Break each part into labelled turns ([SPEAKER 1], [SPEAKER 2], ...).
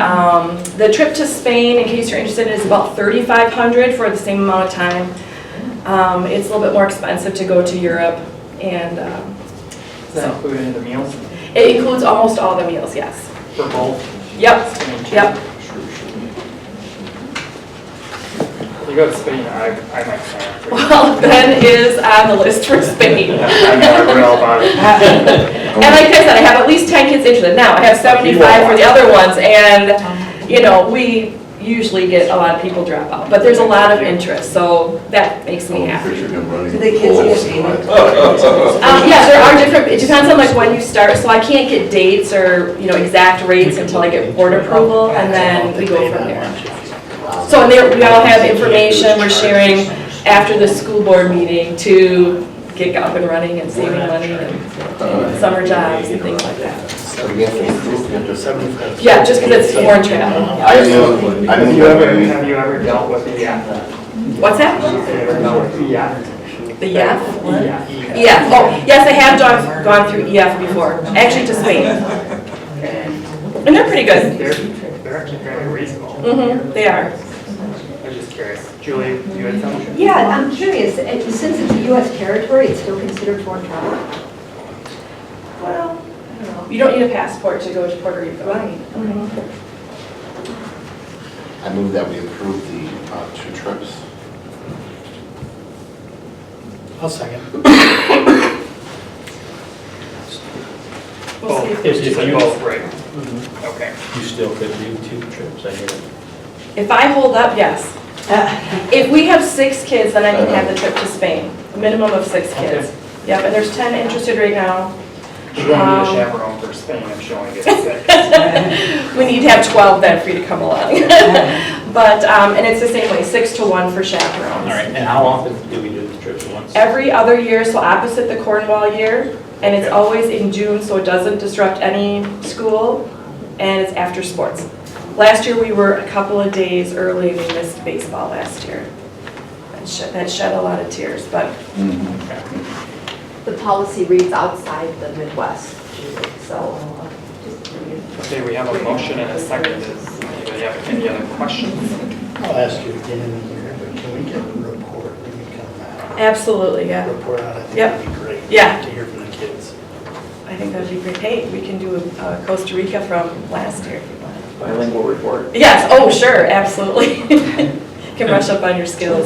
[SPEAKER 1] Um, The trip to Spain, in case you're interested, is about 3,500 for the same amount of time. Um, It's a little bit more expensive to go to Europe, and um,
[SPEAKER 2] Is that included in the meals
[SPEAKER 1] it includes almost all the meals, yes.
[SPEAKER 2] for both?
[SPEAKER 1] Yep,
[SPEAKER 2] Spain and
[SPEAKER 1] yep.
[SPEAKER 2] Chile? You go to Spain, I, I might sign up.
[SPEAKER 1] Well, Ben is on the list for Spain.
[SPEAKER 2] I know, I read all about it.
[SPEAKER 1] And like I said, I have at least 10 kids interested now. I have 75 for the other ones, and, you know, we usually get a lot of people drop out, but there's a lot of interest, so that makes me happy.
[SPEAKER 3] Do the kids get
[SPEAKER 4] paid?
[SPEAKER 1] Um, yeah, there are different, it depends on like when you start, so I can't get dates or, you know, exact rates until I get board approval, and then we go from there. So, and there, we all have information we're sharing after the school board meeting to get up and running and saving money and summer jobs and things like that. Yeah, just because it's foreign travel.
[SPEAKER 3] I have, I
[SPEAKER 2] Have you ever,
[SPEAKER 3] have,
[SPEAKER 2] have you ever dealt with the Have
[SPEAKER 1] What's
[SPEAKER 2] you
[SPEAKER 1] that?
[SPEAKER 2] ever dealt with the EF?
[SPEAKER 1] The E EF?
[SPEAKER 2] EF.
[SPEAKER 1] EF, oh, yes, I have gone, gone through EF before, actually to Spain,
[SPEAKER 2] And
[SPEAKER 1] and they're pretty good.
[SPEAKER 2] they're, they're actually very reasonable.
[SPEAKER 1] Mm-hmm, they are.
[SPEAKER 2] I was just curious. Julie, you had something?
[SPEAKER 5] Yeah, I'm curious, and since it's a US territory, it's still considered foreign travel?
[SPEAKER 1] Well, I don't know. You don't need a passport to go to Puerto Rico. Right. Mm-hmm.
[SPEAKER 3] I move that we approve the uh, two trips.
[SPEAKER 6] I'll second.
[SPEAKER 1] We'll
[SPEAKER 2] Both.
[SPEAKER 1] see
[SPEAKER 6] If-
[SPEAKER 2] You
[SPEAKER 6] if
[SPEAKER 2] said
[SPEAKER 6] you-
[SPEAKER 2] both, right? Okay.
[SPEAKER 6] You still could do two trips, I hear.
[SPEAKER 1] If I hold up, yes. If we have six kids, then I can have the
[SPEAKER 6] Uh-huh.
[SPEAKER 1] trip to Spain, a minimum of six kids. Yep, and there's 10 interested right now.
[SPEAKER 2] She's gonna need
[SPEAKER 1] Um,
[SPEAKER 2] a chaperone for Spain if she only gets six.
[SPEAKER 1] We need to have 12 then for you to come along. But, um, and it's the same way, six to one for chaperones.
[SPEAKER 6] Uh-huh. All right, and how often do we do the trips? Once?
[SPEAKER 1] Every other year, so opposite the Cornwall year, and it's
[SPEAKER 6] Okay.
[SPEAKER 1] always in June, so it doesn't disrupt any school, and it's after sports. Last year, we were a couple of days early, we missed baseball last year. That shed, that shed a lot of tears, but
[SPEAKER 3] Mm-hmm.
[SPEAKER 7] The policy reads outside the Midwest, so.
[SPEAKER 2] Okay, we have a motion and a second. Does anybody have any other questions?
[SPEAKER 8] I'll ask you again in a year, but can we get a report when you come out?
[SPEAKER 1] absolutely, yeah.
[SPEAKER 8] Report out, I think
[SPEAKER 1] Yep.
[SPEAKER 8] that'd be great.
[SPEAKER 1] Yeah.
[SPEAKER 8] To hear from the kids.
[SPEAKER 1] I think that'd be great. Hey, we can do uh, Costa Rica from last year if you want.
[SPEAKER 2] Bilingual report.
[SPEAKER 1] Yes, oh, sure, absolutely. Can brush up on your skills.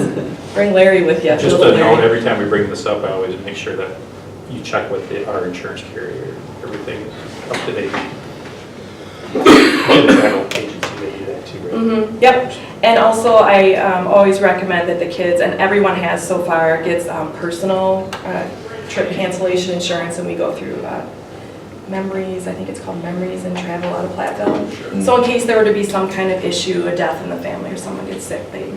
[SPEAKER 1] Bring Larry with you.
[SPEAKER 9] Just
[SPEAKER 1] Little
[SPEAKER 9] a note,
[SPEAKER 1] Larry.
[SPEAKER 9] every time we bring this up, I always make sure that you check with the- our insurance carrier, everything is up to date. The Title agency, they do that too, right?
[SPEAKER 1] Mhm, Yep, and also I um, always recommend that the kids, and everyone has so far, gets um, personal uh, trip cancellation insurance, and we go through uh, memories, I think it's called memories and travel out of Platteville. So in case there were to be some kind of issue, a death in the family, or someone gets sick, they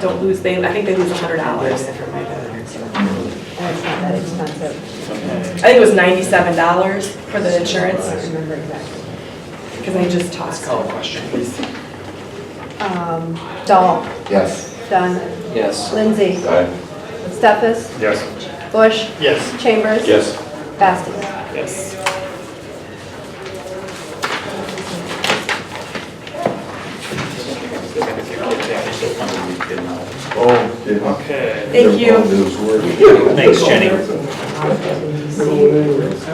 [SPEAKER 1] don't lose, they, I think they lose hundred dollars.
[SPEAKER 5] That's not that expensive.
[SPEAKER 1] I think it was ninety-seven dollars for the insurance,
[SPEAKER 5] remember exactly.
[SPEAKER 1] because I just
[SPEAKER 2] Let's
[SPEAKER 1] tossed.
[SPEAKER 2] call a question, please.
[SPEAKER 7] Um, Dahl,
[SPEAKER 3] Yes.
[SPEAKER 7] Dunn,
[SPEAKER 4] Yes.
[SPEAKER 7] Lindsay, Stefas,
[SPEAKER 9] Yes.
[SPEAKER 7] Bush,
[SPEAKER 8] Yes.
[SPEAKER 7] Chambers.
[SPEAKER 4] Yes.
[SPEAKER 7] Bastos.
[SPEAKER 2] Yes.
[SPEAKER 3] Oh, yeah.
[SPEAKER 2] Okay,
[SPEAKER 1] Thank you.
[SPEAKER 6] Thanks, Jenny.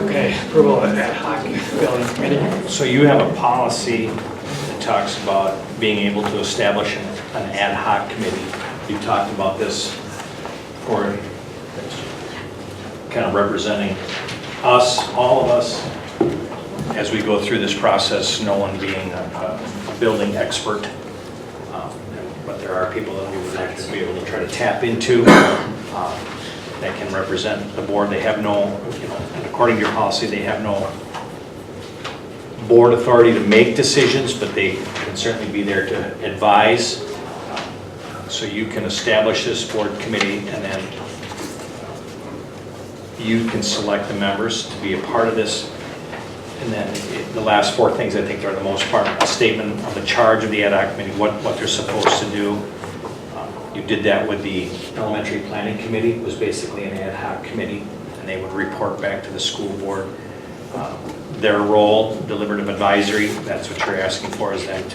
[SPEAKER 2] okay, approval of ad hoc billing committee.
[SPEAKER 6] So you have a policy that talks about being able to establish an an ad hoc committee. You talked about this for kind of representing us, all of us, as we go through this process, no one being a a building expert. Um, But there are people that we would like to be able to try to tap into um, that can represent the board. They have no, you know, according to your policy, they have no board authority to make decisions, but they can certainly be there to advise. So you can establish this board committee, and then you can select the members to be a part of this. And then it- the last four things, I think, are the most part, a statement of the charge of the ad hoc committee, what, what they're supposed to do. Um, You did that with the elementary planning committee, It was basically an ad hoc committee, and they would report back to the school Uh, board. Um, Their role, deliberative advisory, that's what you're asking for, is them to